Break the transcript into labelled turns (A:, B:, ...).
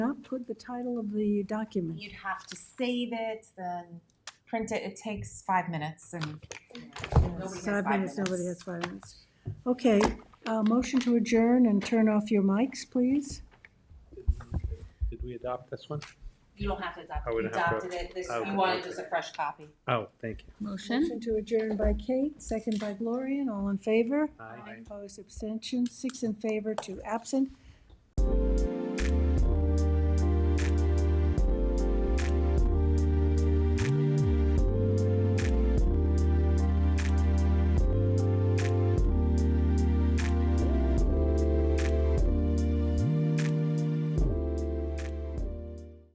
A: not put the title of the document?
B: You'd have to save it, then print it. It takes five minutes and you know, nobody has
A: Five minutes, nobody
B: minutes.
A: has five minutes. Okay, uh, motion to adjourn and turn off your mics, please.
C: Did we adopt this one?
B: You don't have to adopt
C: I
B: it. You
C: wouldn't have to-
B: adopted it. This,
C: I
B: you
C: wouldn't
B: wanted
C: have to.
B: just a fresh copy.
C: Oh, thank you.
D: Motion?
A: Motion to adjourn by Kate, second by Gloria, and all in favor?
C: Aye.
A: Opposed, abstentions, six in favor, two absent.